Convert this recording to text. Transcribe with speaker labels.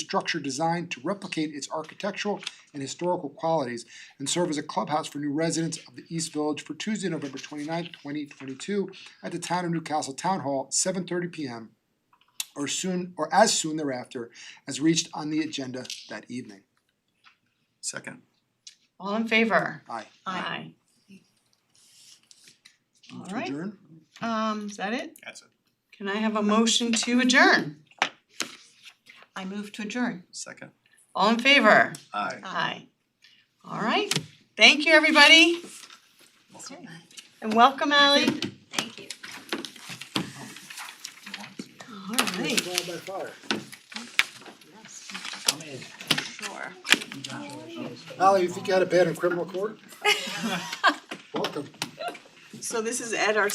Speaker 1: structure designed to replicate its architectural and historical qualities and serve as a clubhouse for new residents of the East Village for Tuesday, November 29, twenty-two at the Town of Newcastle Town Hall, seven thirty P M or soon, or as soon thereafter, as reached on the agenda that evening.
Speaker 2: Second.
Speaker 3: All in favor?
Speaker 1: Aye.
Speaker 3: Aye.
Speaker 1: Move to
Speaker 3: Alright.
Speaker 1: adjourn?
Speaker 3: Um, is that it?
Speaker 2: That's it.
Speaker 3: Can I have a motion to adjourn?
Speaker 4: I move to adjourn.
Speaker 2: Second.
Speaker 3: All in favor?
Speaker 2: Aye.
Speaker 3: Aye. All right, thank you, everybody,
Speaker 4: Okay.
Speaker 3: and welcome, Ally.
Speaker 4: Thank you.
Speaker 3: All right.
Speaker 4: Yes, sure.
Speaker 1: Ally, you think you had a bad in criminal court? Welcome.
Speaker 3: So this is Ed, our